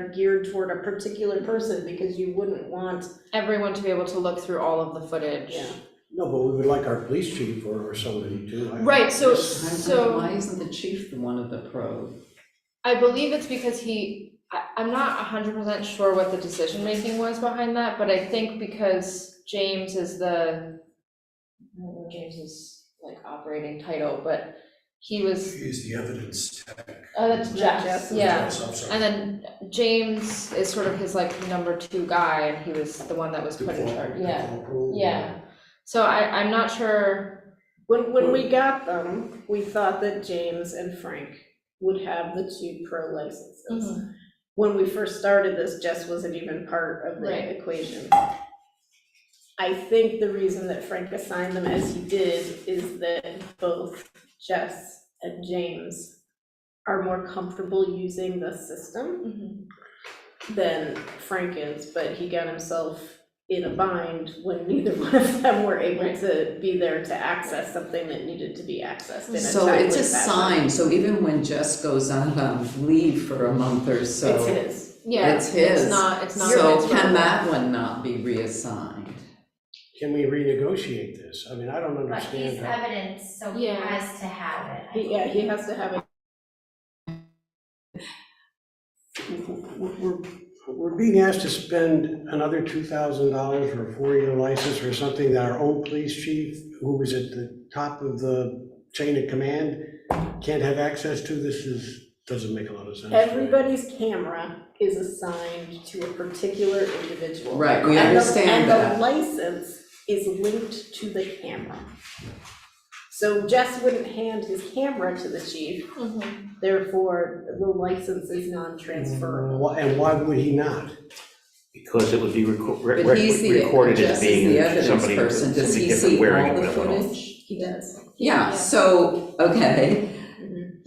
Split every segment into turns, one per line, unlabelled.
are geared toward a particular person, because you wouldn't want,
everyone to be able to look through all of the footage.
Yeah.
No, but we would like our police chief or, or somebody to. I-
Right, so,
I'm like,
so
Why isn't the chief the one of the pro?
I believe it's because he, I, I'm not hundred percent sure what the decision making was behind that, but I think because James is the, I don't know James's like operating title, but he was,
He's the evidence tech.
oh, that's Jess,
Jess.
yeah.
Yes, I'm sorry.
And then James is sort of his like number two guy, and he was the one that was put in
Default-
charge, yeah,
default rule.
yeah. So I, I'm not sure,
when, when we got them, we thought that James and Frank would have the two pro licenses. When we first started this, Jess wasn't even part of
Right.
the equation. I think the reason that Frank assigned them as he did is that both Jess and James are more comfortable using the system. than Frank is, but he got himself in a bind when neither one of them were able
Right.
to be there to access something that needed to be accessed in a timely fashion.
So it's a sign, so even when Jess goes on um, leave for a month or so.
It's his.
yeah,
It's
it's
his.
not, it's not.
So
it's
can
not-
that one not be reassigned?
Can we renegotiate this? I mean, I don't
But he's
understand how.
evidence, so he
Yeah.
has to have it. I
He- Yeah, he has to have it.
We're, we're- we're being asked to spend another two thousand dollars for a four-year license for something that our own police chief, who was at the top of the chain of command, can't have access to. This is, doesn't make a lot of sense.
Everybody's camera is assigned to a particular individual.
Right, we
And the-
understand
And the
that.
license is linked to the camera. So Jess wouldn't hand his camera to the chief,
Mhm.
therefore the license is non-transferable.
Why- And why would he not?
Because it would be reco- re-
But he's
re-
the,
recorded as
Jess is
being
the evidence
somebody,
person, does
somebody
he see
different wearing it
all
when
the
it went off.
footage?
He does.
Yeah,
Yeah.
so, okay.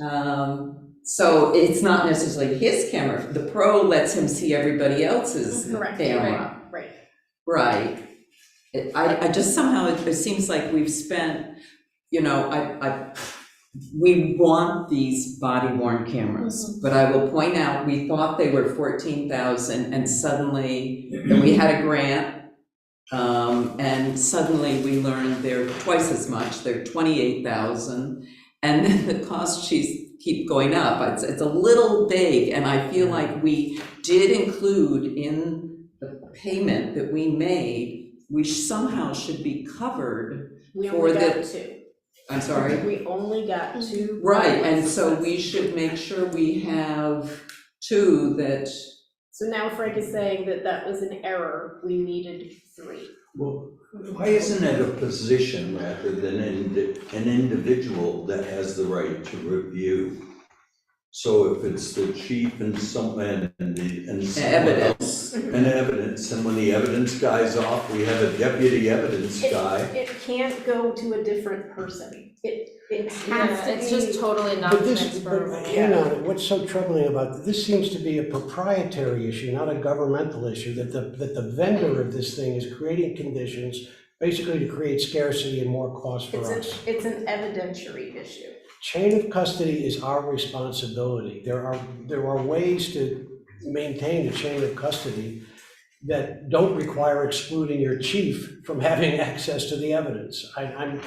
Um, so it's not necessarily his camera, the pro lets him see everybody else's
Mhm, correct,
camera.
Right.
Right. It- I, I just somehow, it, it seems like we've spent, you know, I, I, we want these body worn cameras. But I will point out, we thought they were fourteen thousand and suddenly, then we had a grant. Um, and suddenly we learned they're twice as much, they're twenty-eight thousand. And then the costs she's keep going up, it's, it's a little vague, and I feel like we did include in the payment that we made, we somehow should be covered,
We
For
only
the-
got two.
I'm sorry.
We only got two.
Right, and so
licenses.
we should make sure we have two that,
So now Frank is saying that that was an error, we needed three.
Well, why isn't it a position rather than an, indi- an individual that has the right to review? So if it's the chief and some, and the, and someone else.
Evidence.
And evidence, and when the evidence guy's off, we have a deputy evidence
It-
guy.
It can't go to a different person. It, it has to
Yeah,
be.
it's just totally not
But this,
transferable.
but hang on, what's so troubling about, this This seems to be a proprietary issue, not a governmental issue, that the, that the vendor of this thing is creating conditions basically to create scarcity and more cost for
It's an,
us.
it's an evidentiary issue.
Chain of custody is our responsibility. There are, there are ways to maintain a chain of custody that don't require excluding your chief from having access to the evidence. I, I'm,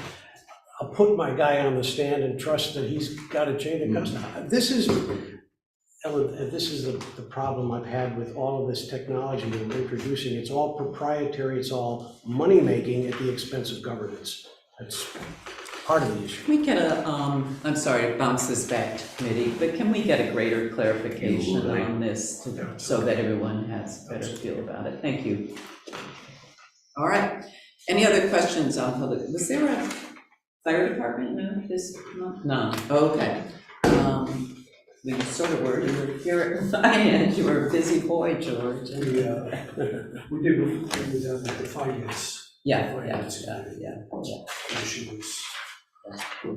I'll put my guy on the stand and trust that he's got a chain of custody. This is, Ellen, this is the, the problem I've had with all of this technology that we're introducing. It's all proprietary, it's all money-making at the expense of governance. That's part of the issue.
can we get a, um, I'm sorry to bounce this back to committee, but can we get a greater clarification
Absolutely.
on this to- so that everyone has a better feel about it? Thank you. All right, any other questions on public, was there a fire department note this month? None, okay. Um, We sort of were, you were here at finance, you were a busy boy, George.
We, uh, we did, we did that with the finance,
Yeah, yeah, yeah, yeah,
she was.
yeah.
No,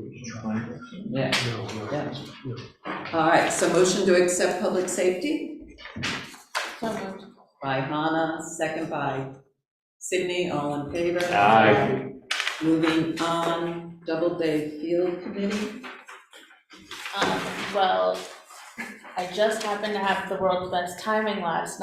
no.
Yeah. All right, so motion to accept public safety?
Um,
By Hannah, second by Sydney, all in favor?
Aye.
Moving on, Doubleday Field Committee?
Um, well,
I just happened to have the world's best timing last night.